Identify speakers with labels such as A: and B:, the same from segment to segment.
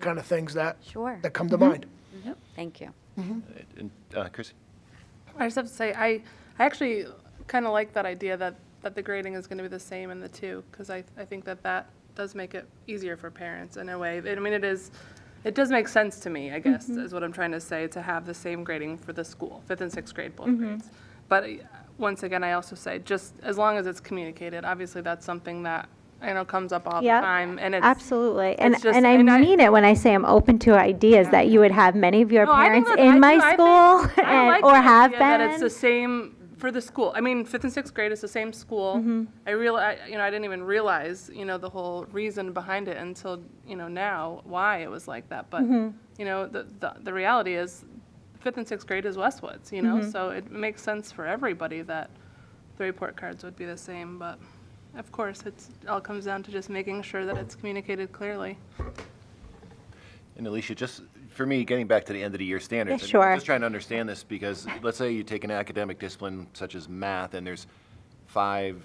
A: kind of things that,
B: Sure. Mm-hmm.
A: that come to mind.
B: Thank you.
C: And, uh, Chrissy?
D: I just have to say, I, I actually kind of like that idea that, that the grading is going to be the same in the two, because I, I think that that does make it easier for parents in a way. I mean, it is, it does make sense to me, I guess, is what I'm trying to say, to have the same grading for the school, fifth and sixth grade, both grades. But uh, once again, I also say, just as long as it's communicated, obviously that's something that, I know, comes up all the
E: Yep,
D: time, and it's.
E: Absolutely. And,
D: it's just-
E: and I
D: and I-
E: mean it when I say I'm open to ideas, that you would have many of your
D: No, I think
E: parents
D: that- I
E: in my
D: do- I
E: school
D: think- I
E: and,
D: like
E: or
D: the
E: have
D: idea
E: been.
D: That it's the same for the school. I mean, fifth and sixth grade is the same school.
E: Mm-hmm.
D: I real, I, you know, I didn't even realize, you know, the whole reason behind it until you know now why it was like that. But
E: Mm-hmm.
D: you know, the, the the reality is, fifth and sixth grade is Westwoods. You know,
E: Mm-hmm.
D: so it makes sense for everybody that the report cards would be the same, but. Of course, it's all comes down to just making sure that it's communicated clearly.
C: And Alicia, just for me, getting back to the end of the year standards. I
E: Yeah,
C: mean, I'm
E: sure.
C: Just trying to understand this because let's say you take an academic discipline such as math and there's five,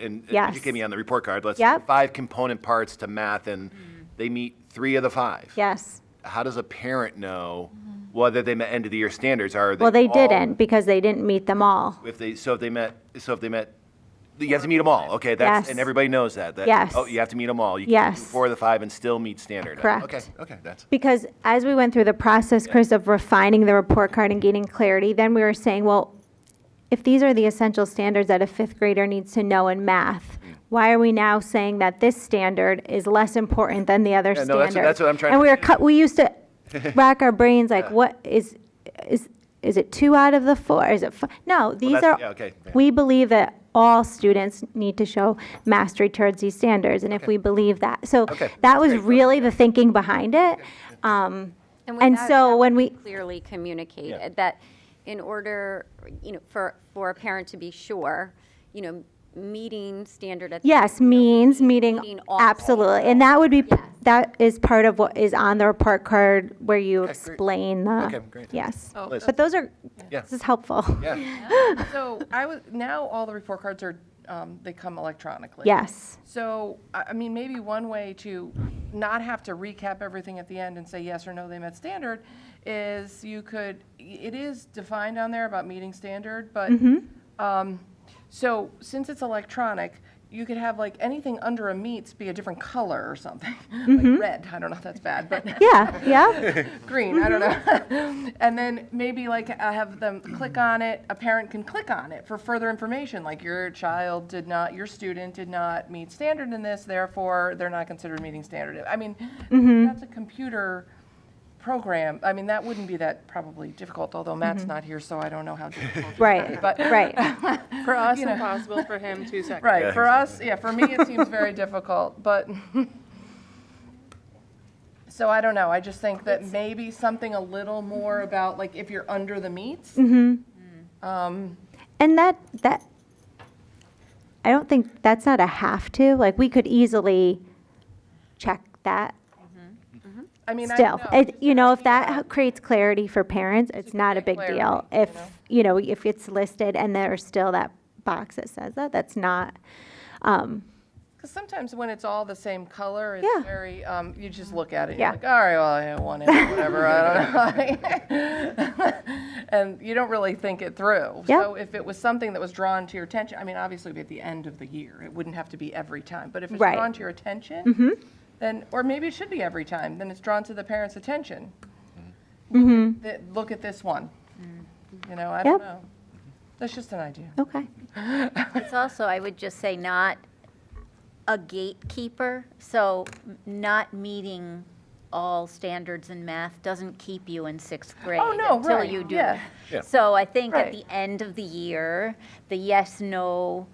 C: and
E: Yes.
C: educate me on the report card, let's,
E: Yep. Mm-hmm.
C: five component parts to math and they meet three of the five.
E: Yes.
C: How does a parent know whether they met end of the year standards? Are they
E: Mm-hmm. Well, they
C: all-
E: didn't because they didn't meet them all.
C: If they, so if they met, so if they met, you have to meet them all, okay? that's
E: Yes.
C: And everybody knows that. that-
E: Yes.
C: Oh, you have to meet them all. You can't do
E: Yes.
C: Four of the five and still meet standard.
E: Correct.
C: Okay, okay, that's.
E: Because as we went through the process, Chris, of refining the report card and gaining clarity, then we were saying, well, if these are the essential standards that a fifth grader needs to know in math, why are we now saying that this standard is less important than the other
C: Yeah,
E: standard?
C: no, that's- that's what I'm trying
E: And
C: to-
E: we were, cut- we used to rack our brains like, what is, is, is it two out of the four? Is it, fi- no, these
C: that's-
E: are,
C: yeah, okay, yeah.
E: we believe that all students need to show mastery towards these standards, and if we believe that. So
C: Okay.
E: that was really the thinking behind it. Um, And
B: without
E: so
B: having
E: when we,
B: Clearly
C: Yeah.
B: communicated that in order, you know, for, for a parent to be sure, you know, meeting standard at. the
E: yes,
B: end of the year
E: means,
B: would be
E: meeting,
B: meeting all-
E: absolutely. And that would be,
B: Yes.
E: that is part of what is on the report card where you
C: great.
E: explain the.
C: Okay, great.
E: Yes.
F: Oh.
C: Liz.
E: But those are,
C: Yeah.
E: this is helpful.
C: Yeah,
F: So I was, now all the report cards are, um, they come electronically.
E: Yes,
F: So, I, I mean, maybe one way to not have to recap everything at the end and say yes or no, they met standard, is you could, it is defined on there about meeting standard, but, um, so since it's electronic, you could have like anything under a meets be a different color or something, like red, I don't know if that's bad, but.
E: yeah, yeah,
F: green, I don't know. and then maybe like I have them click on it, a parent can click on it for further information, like your child did not, your student did not meet standard in this, therefore they're not considered meeting standard. I mean, that's a computer program. I mean, that wouldn't be that probably difficult, although Matt's not here, so I don't know how difficult. it would be,
E: right,
F: But
E: right.
D: For us, impossible. For him, two seconds.
F: Right, for us, yeah, for me, it seems very difficult, but, so I don't know, I just think that maybe something a little more about, like, if you're under the meets,
E: Mm-hmm. And that, that, I don't think, that's not a have to, like, we could easily check that
F: I mean, I
E: still.
F: don't know.
E: It, you know, if that creates clarity for parents, it's not a big
F: clarity,
E: deal. If, you know, if it's listed and there's still that box that says that, that's not, um,
F: Because sometimes when it's all the same color, it's
E: Yeah.
F: very, um, you just look at it, and
E: Yeah.
F: you're like, all right, well, I want it, whatever, I don't know. And you don't really think it through.
E: Yeah.
F: So if it was something that was drawn to your attention, I mean, obviously it'd be at the end of the year, it wouldn't have to be every time, but if it's
E: Right. Mm-hmm.
F: drawn to your attention, then, or maybe it should be every time, then it's drawn to the parent's attention. Th- Look at this one. You know, I don't
E: Mm-hmm. Yep.
F: know. That's just an idea.
E: okay.
G: It's also, I would just say, not a gatekeeper, so not meeting all standards in math doesn't keep you in sixth grade.
F: Oh, no, right,
G: Until you do.
F: yeah.
C: Yeah.
G: So I think at
F: Right.
G: the end of the year, the yes, no,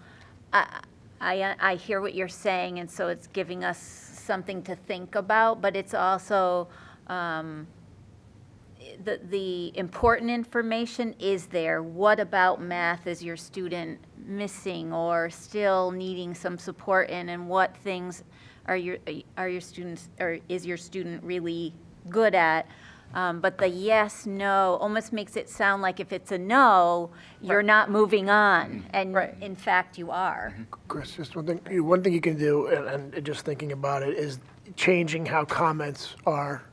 G: I, I, I hear what you're saying, and so it's giving us something to think about, but it's also, um, the, the important information is there. What about math is your student missing or still needing some support in? And what things are your, are your students, or is your student really good at? Um, but the yes, no almost makes it sound like if it's a no, you're not moving on. And
F: Right.
G: in fact, you are.
A: Chris, just one thing, you- one thing you can do, and, and just thinking about it, is changing how comments are